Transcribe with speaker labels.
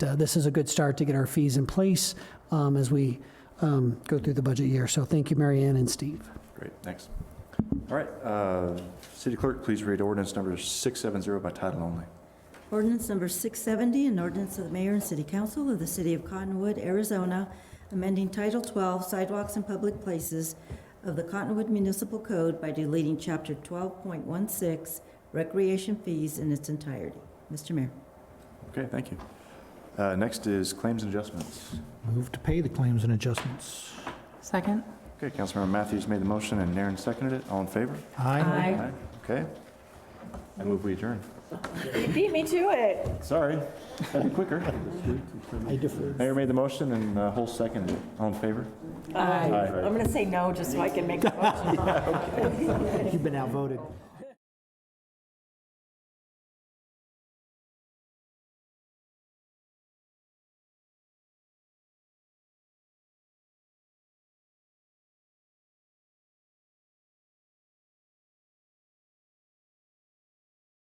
Speaker 1: uh, this is a good start to get our fees in place um, as we um, go through the budget year. So thank you, Mary Ann and Steve.
Speaker 2: Great, thanks. All right, uh, City Clerk, please read ordinance number 670 by title only.
Speaker 3: Ordinance number 670, an ordinance of the mayor and city council of the city of Cottonwood, Arizona, amending Title 12 Sidewalks and Public Places of the Cottonwood Municipal Code by deleting Chapter 12.16 Recreation Fees in its entirety. Mr. Mayor.
Speaker 2: Okay, thank you. Uh, Next is claims and adjustments.
Speaker 4: Move to pay the claims and adjustments.
Speaker 5: Second?
Speaker 2: Okay, Councilmember Matthews made the motion and Naren seconded it. All in favor?
Speaker 4: Aye.
Speaker 2: Aye. Okay. I move we adjourn.
Speaker 5: Beat me to it.
Speaker 2: Sorry, that'd be quicker.
Speaker 4: I defer.
Speaker 2: Mayor made the motion and uh, Holt seconded it. All in favor?
Speaker 5: I'm going to say no, just so I can make a motion.
Speaker 4: You've been outvoted.